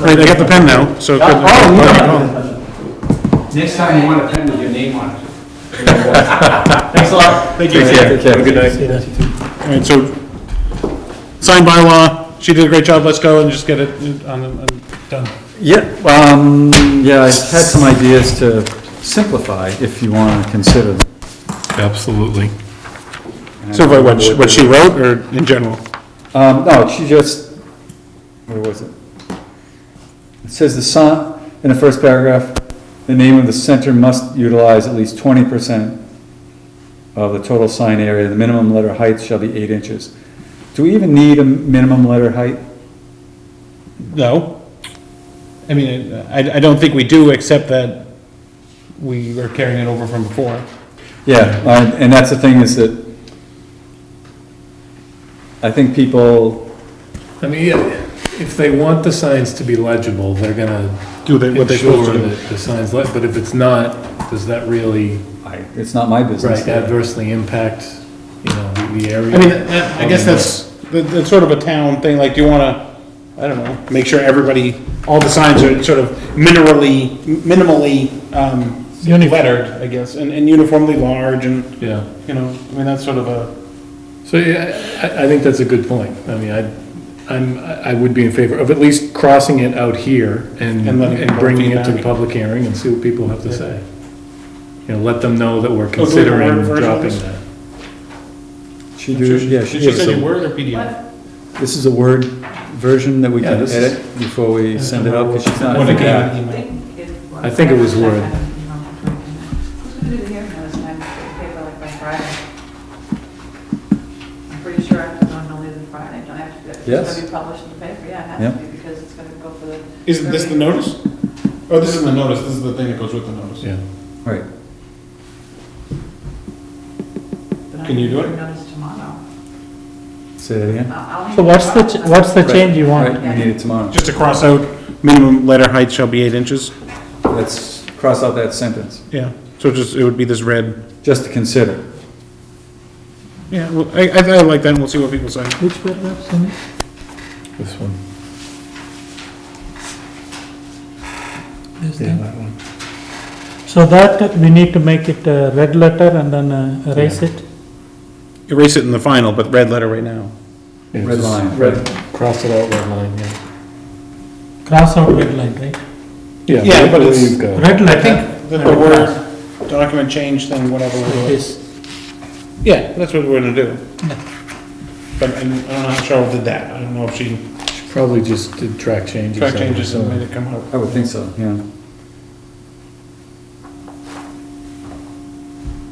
Right, I got the pen now, so. Oh, Next time you want a pen with your name on it. Thanks a lot. Thank you. Take care. Have a good night. All right, so, signed by law, she did a great job, let's go and just get it on, on, done. Yeah, um, yeah, I had some ideas to simplify if you want to consider them. Absolutely. So what, what she- what she wrote, or in general? Um, no, she just, where was it? It says the sign, in the first paragraph, the name of the center must utilize at least twenty percent of the total sign area. The minimum letter height shall be eight inches. Do we even need a minimum letter height? No. I mean, I, I don't think we do, except that we are carrying it over from before. Yeah, uh, and that's the thing is that I think people, I mean, yeah, if they want the signs to be legible, they're gonna Do they, what they're supposed to ensure do. that the signs, le- but if it's not, does that really it's not my business. right, adversely impact, you know, the- the area? I mean, that- I guess that's, that- that's sort of a town thing, like, do you wanna, I don't know, make sure everybody, all the signs are sort of minerally, minimally, um, lettered, I guess, and, and uniformly large, and, Yeah, you know, I mean, that's sort of a, so, yeah, I, I think that's a good point. I mean, I, I'm, I would be in favor of at least crossing it out here and, And letting and bringing it to the people public hearing and see what people have to say. You know, let them know that we're do we have a word considering version of dropping this? that. She do, yeah, she She gives said a- you word or PDF? This is a Word version that we Yeah, can this edit before we send it out, because she's not. When it came Yeah. out, you I might- think it was. I think it was Word. Who's gonna do the hearing notice, and I have to pay by like by Friday? I'm pretty sure I have to go no later than Friday, don't I have to, do it? it's Yes. gonna be published in the paper, yeah, it Yep. has to be, because it's gonna go for the. Isn't this the notice? Oh, this isn't the notice, this is the thing that goes with the notice. Yeah. Right, But I Can you do can it? Notice tomorrow. say that again. I'll- I'll So need- what's the, ch- I'll- what's the Right, change you want? Right, we need it tomorrow. Just to cross out, minimum letter height shall be eight inches. Let's cross out that sentence, Yeah. So just, it would be this red, just to consider. yeah, well, I, I I like that, and we'll see what people say. Which paragraph, Cindy? This one. This thing? So that, we need to make it a red letter and then uh, erase it? Erase it in the final, but red letter right now. Yeah, Red just line. Red, cross it out, red line, yeah. Cross out red line, right? Yeah, but there it's- you go. Red I letter, think the word, document change thing, whatever. it was. yes. Yeah, that's what we're gonna do. But I'm I'm not sure did that, I don't know if she Should Probably just did track changes. track changes and made it come out. I would think so, yeah.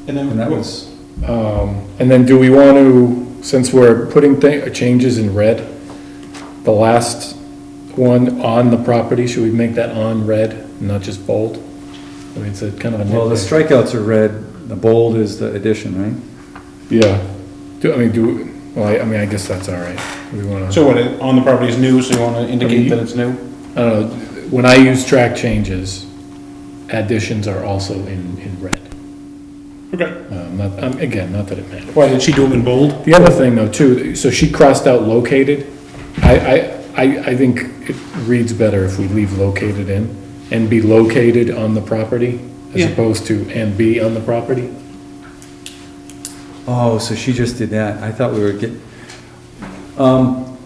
And And that then, was, Um, And then do we want to, since we're putting thi- uh, changes in red, the last one on the property, should we make that on red, not just bold? I mean, it's a kind of a well, the nitpick. strikeouts are red, the bold is the addition, right? Yeah. Do, I mean, do, well, I I mean, I guess that's all right. Do we want to, so what, it- on the property is new, so you wanna indicate that it's new? I don't know, when I use track changes, additions are also in, in red. Okay. Um, not- um, Again, not that it matters. Why, did she do them in bold? The other thing though too, so she crossed out located. I, I, I, I think it reads better if we leave located in and be located on the property Yeah. as opposed to and be on the property. Oh, so she just did that, I thought we were getting, um,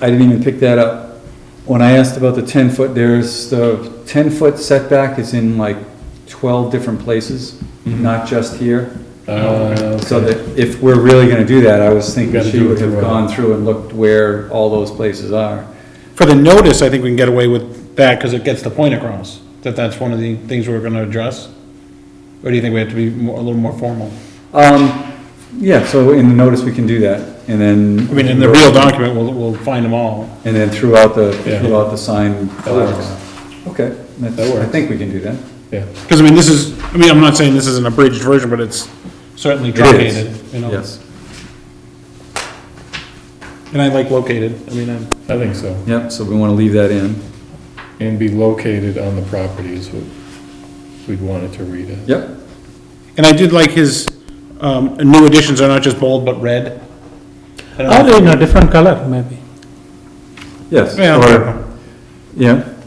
I didn't even pick that up. When I asked about the ten foot, there's, the ten foot setback is in like twelve different places, Mm-hmm. not just here. Uh, So that if we're really gonna do that, I was thinking Gotta she do it would have through, uh, gone through and looked where all those places are. For the notice, I think we can get away with that, cause it gets the point across, that that's one of the things we're gonna address. Or do you think we have to be more, a little more formal? Um, yeah, so in the notice, we can do that, and then. I mean, in the real document, we'll, we'll find them all. And then throughout the, Yeah. throughout the sign. That works. Okay, that's, That I works. think we can do that. Yeah, Because I mean, this is, I mean, I'm not saying this is an abridged version, but it's certainly It is. truncated, you know? Yes, And I like located, I mean, I'm, I think so. yep, so we wanna leave that in, And be located on the property is what we'd want it to read it. yep, and I did like his, um, new additions are not just bold, but red. I don't know. Or in a different color, maybe. yes. Yeah. Or yeah,